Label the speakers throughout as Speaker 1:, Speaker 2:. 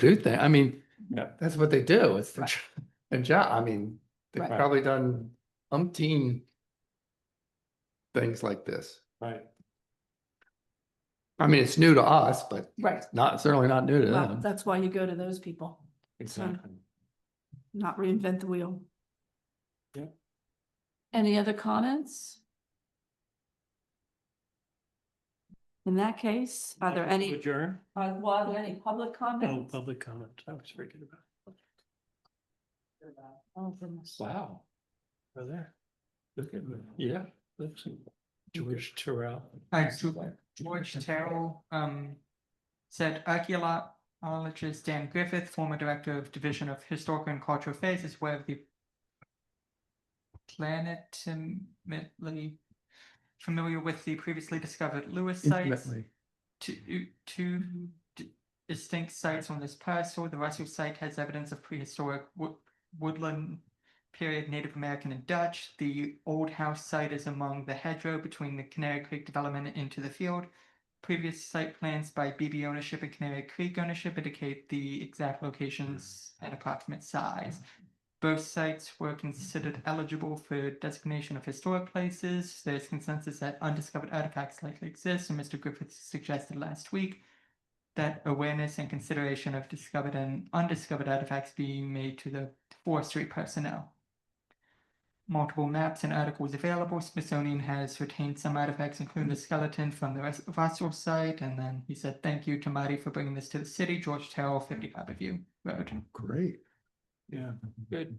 Speaker 1: do thing. I mean,
Speaker 2: Yeah.
Speaker 1: that's what they do. It's the, and job. I mean, they've
Speaker 3: Right.
Speaker 1: probably done umpteen things like this.
Speaker 2: Right.
Speaker 1: I mean, it's new to us, but
Speaker 3: Right.
Speaker 1: not, certainly not new to
Speaker 3: Well,
Speaker 1: them.
Speaker 3: that's why you go to those people,
Speaker 2: Exactly.
Speaker 3: not reinvent the wheel.
Speaker 2: Yeah.
Speaker 3: Any other comments? In that case, are there any,
Speaker 2: Adjourn?
Speaker 3: are well, are there any public
Speaker 2: No
Speaker 3: comments?
Speaker 2: public comment. I was forgetting about.
Speaker 3: Oh, goodness.
Speaker 2: Wow. Are there? Look at me. Yeah. that's George Terrell.
Speaker 4: Hi, George- George Terrell, um, said archaeologist Dan Griffith, former director of Division of Historical and Cultural Affairs, is aware of the planetimately familiar with the previously discovered Lewis sites,
Speaker 1: Intimately.
Speaker 4: two, two d- distinct sites on this parcel. The Russell site has evidence of prehistoric wood, woodland period Native American and Dutch. The old house site is among the hedgerow between the Canary Creek development and into the field. Previous site plans by BB ownership and Canary Creek ownership indicate the exact locations and approximate size. Both sites were considered eligible for designation of historic places. There's consensus that undiscovered artifacts likely exist, and Mr. Griffith suggested last week that awareness and consideration of discovered and undiscovered artifacts be made to the forestry personnel. Multiple maps and articles available. Smithsonian has retained some artifacts, including the skeleton from the Rus- Russell site. And then he said, thank you to Marty for bringing this to the city. George Terrell, 55 Review Road.
Speaker 1: Great.
Speaker 2: Yeah, good.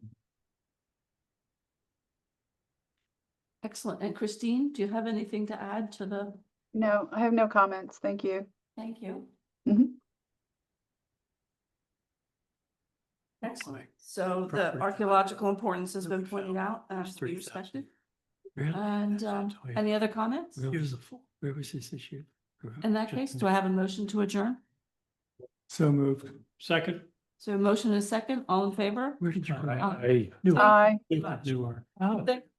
Speaker 3: Excellent. And Christine, do you have anything to add to the,
Speaker 5: No, I have no comments. Thank you.
Speaker 3: thank you.
Speaker 5: Mhm.
Speaker 3: Excellent. So the
Speaker 2: Perfect.
Speaker 3: archaeological importance has been
Speaker 2: Perfect.
Speaker 3: pointed out, and has to be
Speaker 2: Three
Speaker 3: respected.
Speaker 2: thousand. Really?
Speaker 3: And, um, any other comments?
Speaker 2: Beautiful. Where was this issue?
Speaker 3: In that case, do I have a motion to adjourn?
Speaker 2: So moved. Second.
Speaker 3: So a motion and a second, all in favor?
Speaker 2: Where did you?
Speaker 3: I-
Speaker 2: I knew.
Speaker 5: Bye.
Speaker 2: You are.
Speaker 3: Thank